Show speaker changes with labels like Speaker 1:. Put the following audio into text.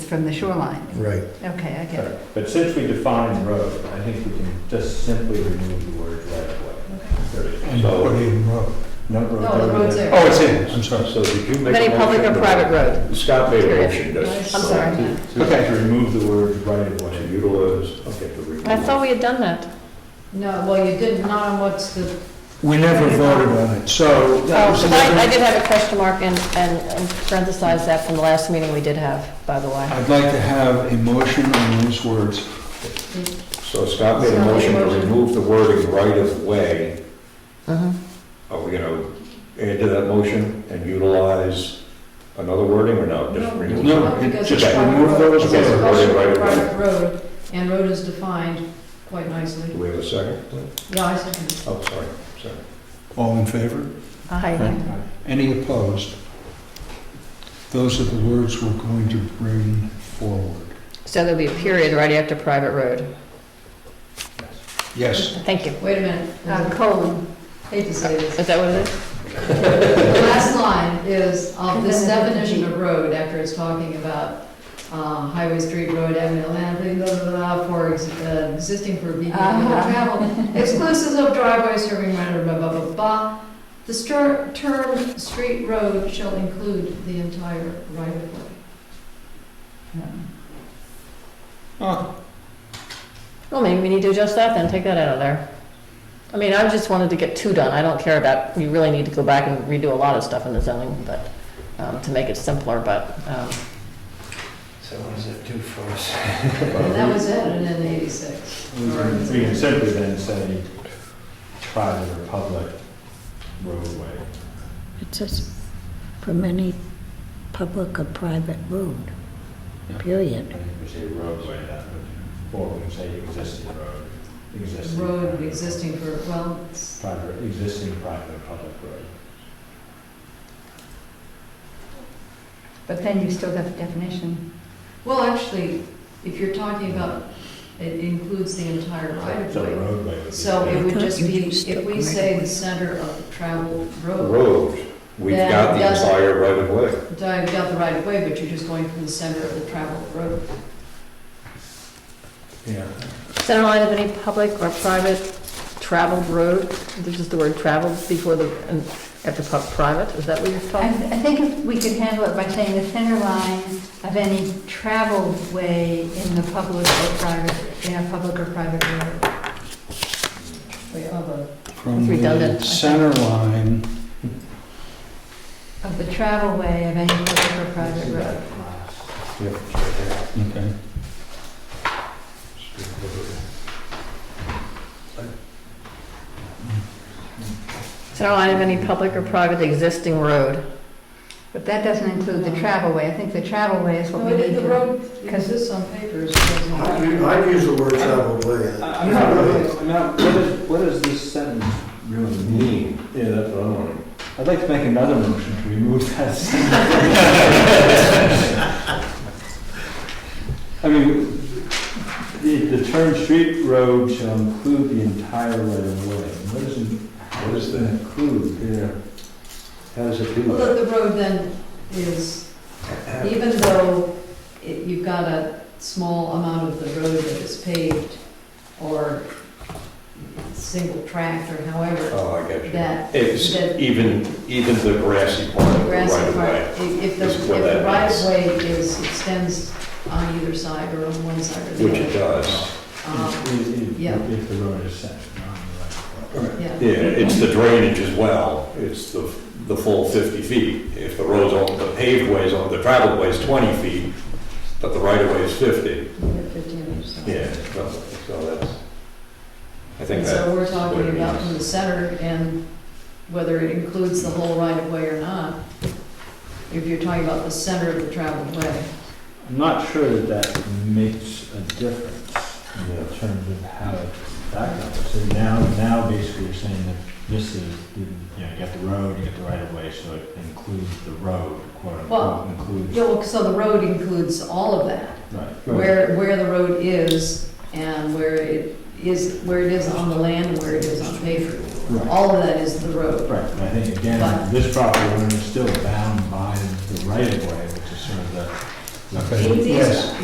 Speaker 1: from the shoreline.
Speaker 2: Right.
Speaker 1: Okay, I get it.
Speaker 3: But since we defined road, I think we can just simply remove the word right of way. Period.
Speaker 2: And put
Speaker 3: So,
Speaker 2: in road.
Speaker 3: no road.
Speaker 4: No, the road's there.
Speaker 5: Oh, it's in, I'm sorry.
Speaker 3: So did you make a
Speaker 6: Any public
Speaker 3: motion
Speaker 6: or
Speaker 3: to-
Speaker 6: private road?
Speaker 3: Scott made a
Speaker 6: Period.
Speaker 3: motion to.
Speaker 4: I'm
Speaker 6: sorry.
Speaker 3: to- to-
Speaker 5: Okay.
Speaker 3: To remove the word right of way.
Speaker 7: To utilize.
Speaker 3: Okay, to remove.
Speaker 6: I thought we had done that.
Speaker 4: No, well, you did not on what's the,
Speaker 5: We never voted on it, so that
Speaker 6: Oh,
Speaker 5: was
Speaker 6: 'cause I, I
Speaker 5: another...
Speaker 6: did have a question mark and, and and parenthesized that from the last meeting we did have, by the way.
Speaker 5: I'd like to have a motion on those words.
Speaker 7: So Scott made
Speaker 4: Scott
Speaker 7: a
Speaker 4: made a
Speaker 7: motion to
Speaker 4: motion.
Speaker 7: remove the wording right of way.
Speaker 1: Uh-huh.
Speaker 6: Mhm.
Speaker 7: Are we gonna add to that motion and utilize another wording or no? Just
Speaker 4: No.
Speaker 7: remove it?
Speaker 5: No, it-
Speaker 4: because
Speaker 5: just
Speaker 4: it's private
Speaker 5: remove
Speaker 4: road.
Speaker 5: those
Speaker 4: It's
Speaker 7: Okay.
Speaker 4: a
Speaker 5: words.
Speaker 4: private
Speaker 7: Right, right, right.
Speaker 4: private road, and road is defined quite nicely.
Speaker 7: Do we have a second?
Speaker 4: Yeah, I see.
Speaker 7: Oh, sorry, sorry.
Speaker 5: All in favor?
Speaker 6: Aye.
Speaker 5: Any opposed? Those are the words we're going to bring forward.
Speaker 6: So there'll be a period right after private road.
Speaker 5: Yes,
Speaker 6: Thank you.
Speaker 4: Wait a minute,
Speaker 1: Uh,
Speaker 4: I
Speaker 1: Colon,
Speaker 4: hate to say this.
Speaker 6: Mm-hmm. Is that what it is?
Speaker 4: The last line is, of this definition of road, after it's talking about uh, highway, street, road, avenue, land, blah, blah, blah, blah, for ex- uh, existing for vehicular
Speaker 1: Uh-huh.
Speaker 4: travel, exclusive of driveway serving minor, blah, blah, blah, blah. The star- term street road shall include the entire right of way.
Speaker 6: Well, maybe we need to adjust that then, take that out of there. I mean, I just wanted to get two done, I don't care about, you really need to go back and redo a lot of stuff in the zoning, but, um, to make it simpler, but, um,
Speaker 8: So what does it do for us?
Speaker 4: And that was added in eighty-six.
Speaker 3: We can- we can simply then say private or public roadway.
Speaker 9: It says, from any public or private road, period.
Speaker 3: I think we say roadway, that would, or we can say existing road, existing.
Speaker 4: Road existing for, well, it's,
Speaker 3: Private, existing private or public road.
Speaker 1: but then you've still got the definition.
Speaker 4: well, actually, if you're talking about, it includes the entire right of
Speaker 3: So
Speaker 4: way.
Speaker 3: roadway would be.
Speaker 4: So it would just be, if we say the center of travel road,
Speaker 7: Road, we've
Speaker 4: Then
Speaker 7: got the
Speaker 4: doesn't-
Speaker 7: entire right of way.
Speaker 4: I've got the right of way, but you're just going from the center of the travel road.
Speaker 3: Yeah.
Speaker 6: center line of any public or private traveled road, there's just the word traveled before the, and after pub, private, is that what you're
Speaker 1: I,
Speaker 6: talking?
Speaker 1: I think if we could handle it by saying the center line of any traveled way in the public or private, in a public or private road.
Speaker 4: Wait, oh, the-
Speaker 5: from the
Speaker 6: Redundant, I think.
Speaker 5: center line,
Speaker 1: Of the travel way of any public or private road.
Speaker 5: okay.
Speaker 6: Center line of any public or private existing road.
Speaker 1: But that doesn't include the travel way. I think the travel way is what we
Speaker 4: No,
Speaker 1: need
Speaker 4: it- the
Speaker 1: to.
Speaker 4: road exists on paper, so it's not.
Speaker 2: I'd use the word traveled way.
Speaker 8: I'm not really, I'm not, what is, what does this sentence really mean?
Speaker 3: Yeah, that's what I'm wondering.
Speaker 8: I'd like to make another motion to remove that sentence. I mean, the, the term street road shall include the entire right of way. What does, it- what does that include?
Speaker 7: Yeah. How does it do
Speaker 4: Well,
Speaker 7: that?
Speaker 4: the- the road then is, even though it- you've got a small amount of the road that is paved or single tract or however,
Speaker 7: Oh, I got you.
Speaker 4: that
Speaker 7: It's
Speaker 4: that-
Speaker 7: even, even the grassy part of the right
Speaker 4: grassy
Speaker 7: of
Speaker 4: part,
Speaker 7: way.
Speaker 4: if if the,
Speaker 7: is
Speaker 4: if
Speaker 7: where
Speaker 4: the
Speaker 7: that
Speaker 4: right
Speaker 7: is.
Speaker 4: of way is, extends on either side or on one side or
Speaker 7: Which
Speaker 4: the
Speaker 7: it
Speaker 4: other.
Speaker 7: does.
Speaker 4: Um,
Speaker 3: If- if-
Speaker 4: yeah.
Speaker 3: If the road is set, not the right. of way.
Speaker 4: Yeah,
Speaker 7: Yeah, it's the drainage as well, it's the, the full 50 feet. If the road's on, the paved way's on, the traveled way's 20 feet, but the right of way is 50.
Speaker 4: we're fifteen or so.
Speaker 7: Yeah, so so that's, I think
Speaker 4: And
Speaker 7: that.
Speaker 4: so we're
Speaker 7: what it
Speaker 4: talking about from
Speaker 7: means.
Speaker 4: the center and whether it includes the whole right of way or not. If you're talking about the center of the traveled way.
Speaker 3: I'm not sure that that makes a difference in terms of how it backup. So now, now basically you're saying that this is, you know, you got the road, you got the right of way, so it includes the road, quote
Speaker 4: Well,
Speaker 3: unquote, includes.
Speaker 4: Yeah, well, so the road includes all of that,
Speaker 3: Right.
Speaker 4: where, where the road is and where it is, where it is on the land and where it is on paper.
Speaker 3: Right.
Speaker 4: All of that is the road.
Speaker 3: Right, but I think again,
Speaker 4: But-
Speaker 3: this property owner is still bound by the right of way, which is sort of the, Okay.
Speaker 5: Means easement.
Speaker 3: Yes.